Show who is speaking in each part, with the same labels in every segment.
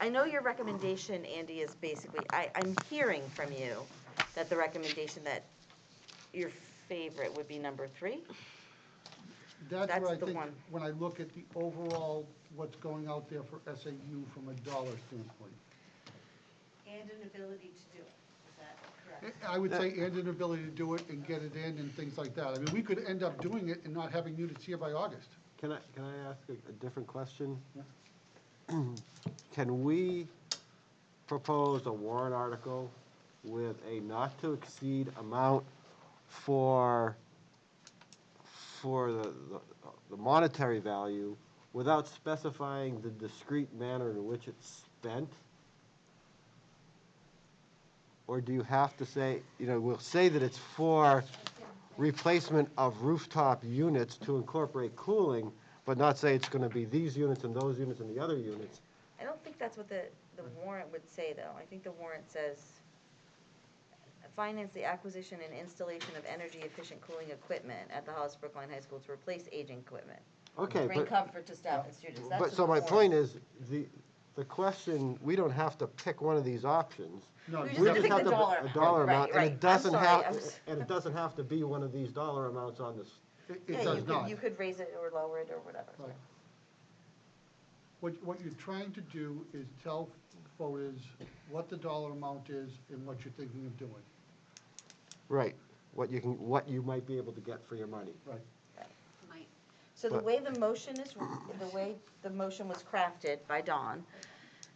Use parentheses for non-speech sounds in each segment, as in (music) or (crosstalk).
Speaker 1: I know your recommendation, Andy, is basically, I, I'm hearing from you that the recommendation that your favorite would be number three?
Speaker 2: That's
Speaker 1: That's
Speaker 2: where I
Speaker 1: the
Speaker 2: think,
Speaker 1: one.
Speaker 2: when I look at the overall, what's going out there for SAU from a dollar standpoint.
Speaker 3: And an ability to do it, is that correct?
Speaker 2: I would say and an ability to do it and get it in and things like that. I mean, we could end up doing it and not having units here by August.
Speaker 4: Can I, can I ask a, a different question? (clears throat) Can we propose a warrant article with a not-to-exceed amount for, for the, the- the monetary value without specifying the discrete manner in which it's spent? Or do you have to say, you know, we'll say that it's for replacement of rooftop units to incorporate cooling, but not say it's gonna be these units and those units and the other units?
Speaker 1: I don't think that's what the, the warrant would say, though. I think the warrant says, finance the acquisition and installation of energy-efficient cooling equipment at the Hollis Brookline High School to replace aging equipment.
Speaker 4: Okay,
Speaker 1: Bring
Speaker 4: but,
Speaker 1: comfort to staff and students. That's
Speaker 4: but,
Speaker 1: what
Speaker 4: so
Speaker 1: the
Speaker 4: my
Speaker 1: warrant-
Speaker 4: point is, the, the question, we don't have to pick one of these options.
Speaker 2: No,
Speaker 1: We
Speaker 2: you
Speaker 1: just
Speaker 4: We
Speaker 1: have to pick
Speaker 4: have
Speaker 1: the
Speaker 4: to-
Speaker 1: dollar
Speaker 4: A dollar
Speaker 1: amount.
Speaker 4: amount, and
Speaker 1: Right, right. I'm
Speaker 4: it doesn't
Speaker 1: sorry,
Speaker 4: have,
Speaker 1: I'm s- (laughs)
Speaker 4: and it doesn't have to be one of these dollar amounts on this.
Speaker 2: It
Speaker 1: Yeah,
Speaker 2: it
Speaker 1: you
Speaker 2: does
Speaker 1: could-
Speaker 2: not.
Speaker 1: You could raise it or lower it or whatever.
Speaker 2: Right. What, what you're trying to do is tell voters what the dollar amount is and what you're thinking of doing.
Speaker 4: Right. What you can, what you might be able to get for your money.
Speaker 2: Right.
Speaker 3: Might.
Speaker 1: So the
Speaker 4: But-
Speaker 1: way the motion is, the way the motion was crafted by Dawn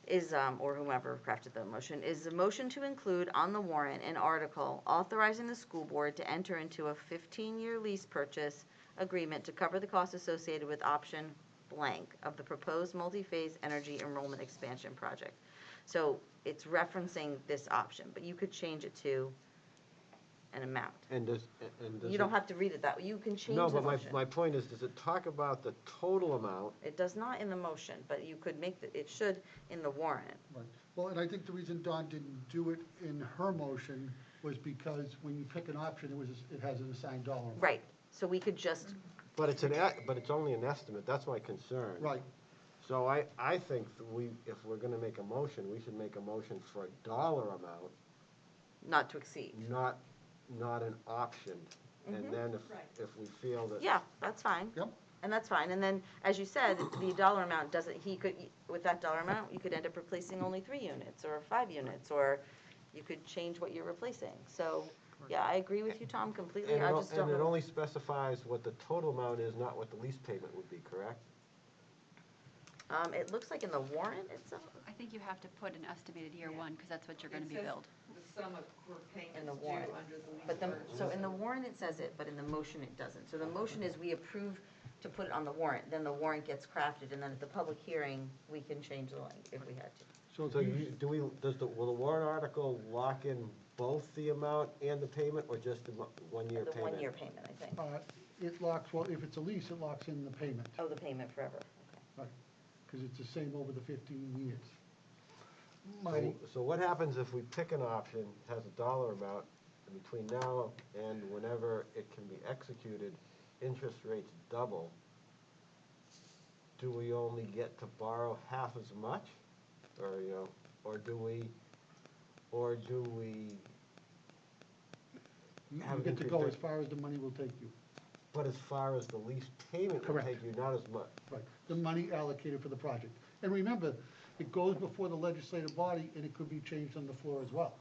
Speaker 1: is, um, or whomever crafted the motion, is the motion to include on the warrant an article authorizing the school board to enter into a 15-year lease purchase agreement to cover the costs associated with option blank of the proposed multi-phase energy enrollment expansion project. So it's referencing this option, but you could change it to an amount.
Speaker 4: And does, and does.
Speaker 1: You don't
Speaker 4: it-
Speaker 1: have to read it that way. You can change
Speaker 4: No,
Speaker 1: the
Speaker 4: but my,
Speaker 1: motion.
Speaker 4: my point is, does it talk about the total amount
Speaker 1: It does not in the motion, but you could make, the- it should in the warrant.
Speaker 2: Right. Well, and I think the reason Dawn didn't do it in her motion was because when you pick an option, it was, it has an assigned dollar amount.
Speaker 1: Right, so we could just,
Speaker 4: But it's an, e- but it's only an estimate, that's my concern.
Speaker 2: Right.
Speaker 4: So I, I think that we, if we're gonna make a motion, we should make a motion for a dollar amount,
Speaker 1: not to exceed.
Speaker 4: not, not an option. And then
Speaker 3: Right.
Speaker 4: if, if we feel that.
Speaker 1: Mm-hmm. Yeah, that's fine.
Speaker 2: Yep.
Speaker 1: And that's fine, and then, as you said, the dollar amount doesn't, he could, with that dollar amount, you could end up replacing only three units, or five units, or you could change what you're replacing. So, yeah, I agree with you, Tom, completely,
Speaker 4: And it,
Speaker 1: I
Speaker 4: o-
Speaker 1: just don't
Speaker 4: and it
Speaker 1: know.
Speaker 4: only specifies what the total amount is, not what the lease payment would be, correct?
Speaker 1: Um, it looks like in the warrant itself,
Speaker 5: I think you have to put an estimated year
Speaker 6: Yeah.
Speaker 5: one, because that's what you're
Speaker 6: It
Speaker 5: gonna be
Speaker 6: says
Speaker 5: billed.
Speaker 6: The sum of her
Speaker 1: In the
Speaker 6: payments due
Speaker 1: warrant.
Speaker 6: under the lease
Speaker 1: but the,
Speaker 6: purchase.
Speaker 1: so in the warrant it says it, but in the motion it doesn't. So the motion is we approve to put it on the warrant, then the warrant gets crafted, and then at the public hearing, we can change the line if we had to.
Speaker 2: So
Speaker 4: So
Speaker 2: if
Speaker 4: you,
Speaker 2: you-
Speaker 4: do we, does the, will the warrant article lock in both the amount and the payment, or just the mo- one-year
Speaker 1: The
Speaker 4: payment?
Speaker 1: one-year payment, I think.
Speaker 2: uh, it locks, well, if it's a lease, it locks in the payment,
Speaker 1: Oh, the payment forever.
Speaker 2: right? Because it's the same over the 15 years. My,
Speaker 4: So- So what happens if we pick an option, it has a dollar amount, and between now and whenever it can be executed, interest rates double? Do we only get to borrow half as much? Or, you know, or do we, or do we,
Speaker 2: you
Speaker 4: Have
Speaker 2: you get
Speaker 4: it
Speaker 2: to
Speaker 4: increased
Speaker 2: go
Speaker 4: by-
Speaker 2: as far as the money will take you,
Speaker 4: but as far as the lease payment will
Speaker 2: Correct.
Speaker 4: take you, not as much?
Speaker 2: right? The money allocated for the project. And remember, it goes before the legislative body, and it could be changed on the floor as well.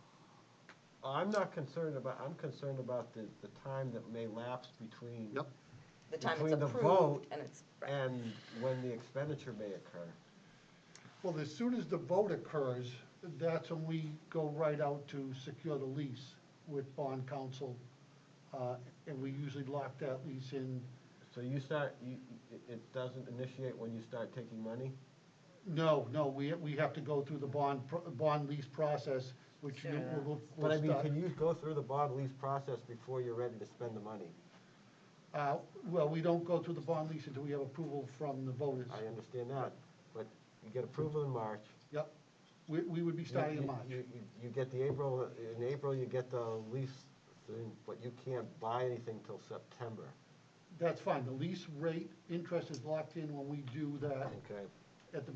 Speaker 4: I'm not concerned about, I'm concerned about the, the time that may lapse between.
Speaker 2: Yep.
Speaker 1: The time it's
Speaker 4: Between the vote
Speaker 1: approved and it's, right.
Speaker 4: And when the expenditure may occur.
Speaker 2: Well, as soon as the vote occurs, that's when we go right out to secure the lease with bond counsel, uh, and we usually lock that lease in.
Speaker 4: So you start, you, it- it doesn't initiate when you start taking money?
Speaker 2: No, no, we, we have to go through the bond, pro- bond lease process, which you will,
Speaker 4: But I
Speaker 2: will
Speaker 4: mean,
Speaker 2: start.
Speaker 4: can you go through the bond lease process before you're ready to spend the money?
Speaker 2: Uh, Well, we don't go through the bond lease until we have approval from the voters.
Speaker 4: I understand that, but you get approval in March.
Speaker 2: Yep. We, we would be
Speaker 4: You-
Speaker 2: starting in
Speaker 4: you-
Speaker 2: March.
Speaker 4: You, you- you get the April, in April, you get the lease thing, but you can't buy anything till September,
Speaker 2: That's fine. The lease rate, interest is locked in when we do that.
Speaker 4: okay?